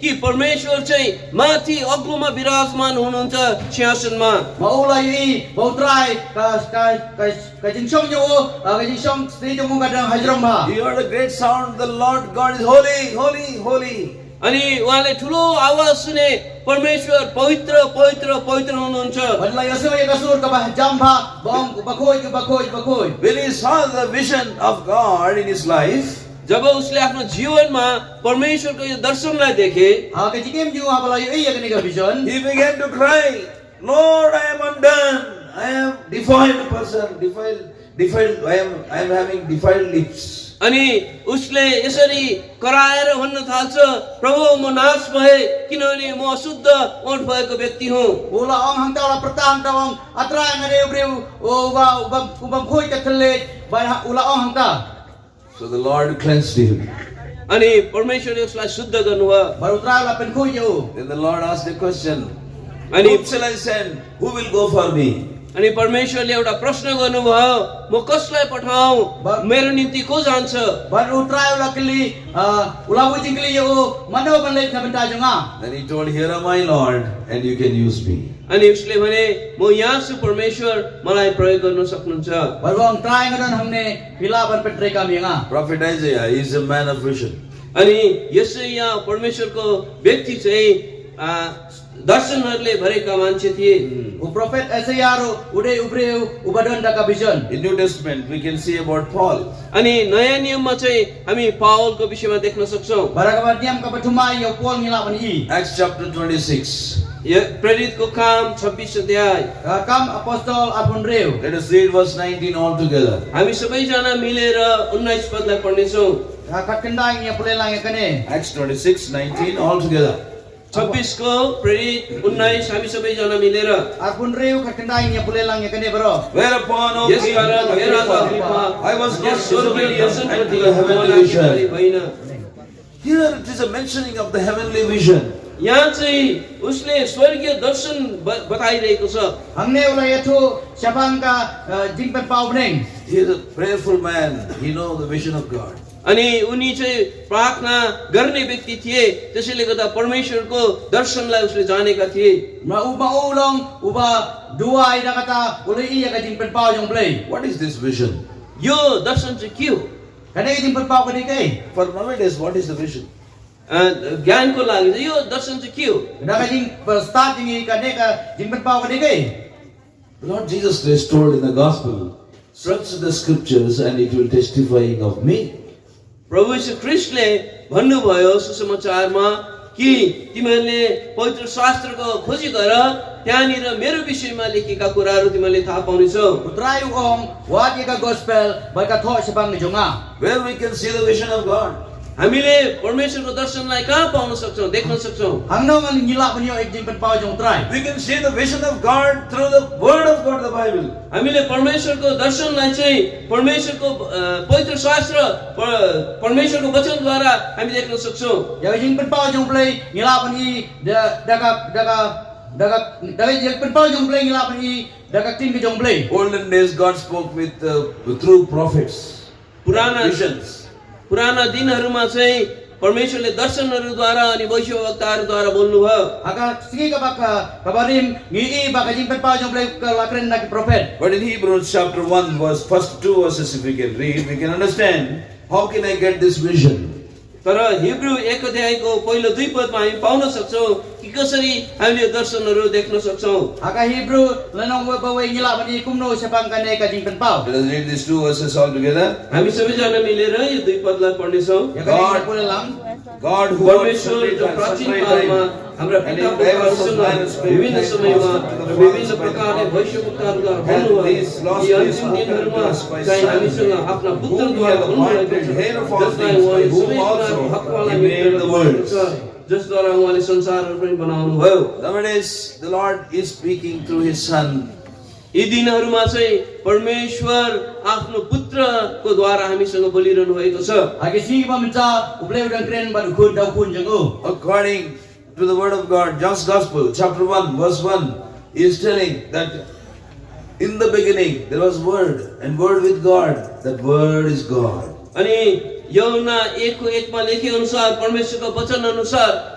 कि परमेश्वर चाहिँ माथि अग्लोमा विराजमान हुनुहुन्छ सिंहासनमा mà ô lai đi mà ô trai cái cái cái cái chính sông như ô à, cái chính sông đi trong mong cái đường hay rong mà You heard a great sound. The Lord God is holy, holy, holy. अनि उहाँले ठुलो आवाज सुने परमेश्वर पवित्र पवित्र पवित्र हुनुहुन्छ vẫn là yêu cái sốt các bạn chăm pha bong bà khôi bà khôi bà khôi When he saw the vision of God in his life, जब उसले आफ्नो जीवनमा परमेश्वरको यो दर्शनलाई देखे à, cái chính em như hà bà ha, lai ya ấy cái này cái vision he began to cry, Lord, I am undone. I am defiled person, defiled, defiled. I am, I am having defiled lips. अनि उसले यसरी कराएर भन्न थाल्छ प्रभु म नाश भए किनभने म अशुद्ध ओठ भएको व्यक्ति हुँ ô là ông hàng tao là prata hàng tao ông atrai ngay đây breu ô bà bà bà khôi cái thân lệ bà ô là ông hàng tao So the Lord cleansed him. अनि परमेश्वरले उसलाई शुद्ध गर्नुभयो bà ô trai là bên khôi nhiều Then the Lord asked a question. अनि Whom shall I send? Who will go for me? अनि परमेश्वरले एउटा प्रश्न गर्नुभयो म कसलाई पठाऊ ब- मेरो निम्ति को जान्छ bà ô trai là cái ly à, ô là vui chính cái ly ô mà đâu bên lên thầm bên trai chúng à Then he told, Here am I, Lord, and you can use me. अनि उसले भने म यहाँ छु परमेश्वर मलाई प्रयोग गर्न सक्नुहुन्छ bà ô ông trai ngay đây हमने pila bên bên trai cam à Prophet Isaiah is a man of vision. अनि यसै यहाँ परमेश्वरको व्यक्ति चाहिँ आ, दर्शनहरूले भरेका मान्छे थिए O prophet Isaiah ro uday ubreu ubadon da kabijon. In New Testament, we can see about Paul. अनि नयाँ नियममा चाहिँ हामी पावलको विषयमा देख्न सक्छौँ Barakabat diam ka batuma yo pol Ya ngila ban i. Acts chapter 26. प्रेरितको काम छब्बिस अध्याय Ka- Kam apostol apun reu. Let us read verse 19 altogether. हामी सबैजना मिलेर उन्नाइस पदलाई पढ्नेछौँ Ka kat kendang ya pole lang ya kane. Acts 26, 19 altogether. छब्बिसको प्रेरित उन्नाइस हामी सबैजना मिलेर Apun reu kat kendang ya pole lang ya kane bro. Whereupon, O यस king, कारण हे राजा कृपा I was यस not स्वर्गीय disobedient दर्शनप्रति unto the heavenly मलाई तिमीलाई vision. होइन Here it is a mentioning of the heavenly vision. यहाँ चाहिँ उसले स्वर्गीय दर्शन ब- बताइरहेको छ Hangne ula ya tu siapang ka uh, jingpen pau bneng. He is a prayerful man. He knows the vision of God. अनि उनी चाहिँ प्रार्थना गर्ने व्यक्ति थिए त्यसैले गर्दा परमेश्वरको दर्शनलाई उसले जानेका थिए Ma uba ulong uba dua ida kata ule i ya ka jingpen pau yang play. What is this vision? यो दर्शन चाहिँ के हो Kane ka jingpen pau kane kai. For nowadays, what is the vision? अ, ज्ञानको लागि चाहिँ यो दर्शन चाहिँ के हो Kada ka jing start jingi kane ka jingpen pau kane kai. The Lord Jesus Christ told in the Gospel, search the scriptures and it will testifying of me. प्रभु यीशु ख्रिस्टले भन्नुभयो सुसमाचारमा कि तिमीहरूले पवित्र शास्त्रको खोजी गर त्यहाँनिर मेरो विषयमा लेखेका कुराहरू तिमीहरूले थाहा पाउनेछौ Utrai ong wat ya ka gospel ba ka tho siapang ni jonga. Where we can see the vision of God. हामीले परमेश्वरको दर्शनलाई कहाँ पाउन सक्छौँ देख्न सक्छौँ Ang nang ang ngila pa niyo ay jing panpaw yung try. We can see the vision of God through the Word of God, the Bible. हामीले परमेश्वरको दर्शनलाई चाहिँ परमेश्वरको अ, पवित्र शास्त्र प- परमेश्वरको वचनद्वारा हामी देख्न सक्छौँ Ya jing panpaw yung play ngila pa ni da daga daga daga daga jing panpaw yung play ngila pa ni daga ting ka yung play. Olden days, God spoke with uh, through prophets. पुराना Visions. पुराना दिनहरूमा चाहिँ परमेश्वरले दर्शनहरूद्वारा अनि वैश्ववक्ताहरूद्वारा बोल्नुभयो Aga sige ka ba ka kabarim ngii ba ka jing panpaw yung play ka lakren na ki prophet. But in Hebrews chapter 1, verse first two verses, if we can read, we can understand how can I get this vision? तर हिब्रू एक अध्यायको पहिलो दुई पदमा हामी pound सक्छौँ कि कसरी हामीले यो दर्शनहरू देख्न सक्छौँ Aga Hebrew lenong wa ba ngila pa ni kumno kan siapang ka ne ka jing panpaw. Let us read these two verses all together. हामी सबैजना मिलेर यो दुई पदलाई पढ्नेछौँ Ya ka God. jing panpaw lang. God who परमेश्वर works जो at प्राचीन sunrise कालमा time हाम्रा and पिताको in diverse कालसँग times विभिन्न mankind समयमा passed to the विभिन्न Father by the प्रकारले Father. वैश्ववक्ताहरूद्वारा And बोल्नुभयो these lost यी अन्तिम days दिनहरूमा are spoken to us by चाहिँ Son, हामीसँग आफ्ना whom पुत्रद्वारा बोल्नुभएको he has appointed छ, heir of all जसलाई उहाँले things, by whom सबै also कुराको हकवालाई he made मित्र the बनाउनु छ, world. जसद्वारा उहाँले संसारहरू पनि बनाउनु भयो Nowadays, the Lord is speaking through His Son. यी दिनहरूमा चाहिँ परमेश्वर आफ्नो पुत्रको द्वारा हामीसँग बोलिरहनु भएको छ Aga sige ba minta ublay udang kren ba dukun daw kun jang o. According to the Word of God, John's Gospel, chapter 1, verse 1, is telling that in the beginning there was Word, and Word with God. That Word is God. अनि यौना एकको एकमा लेखे अनुसार परमेश्वरको वचन अनुसार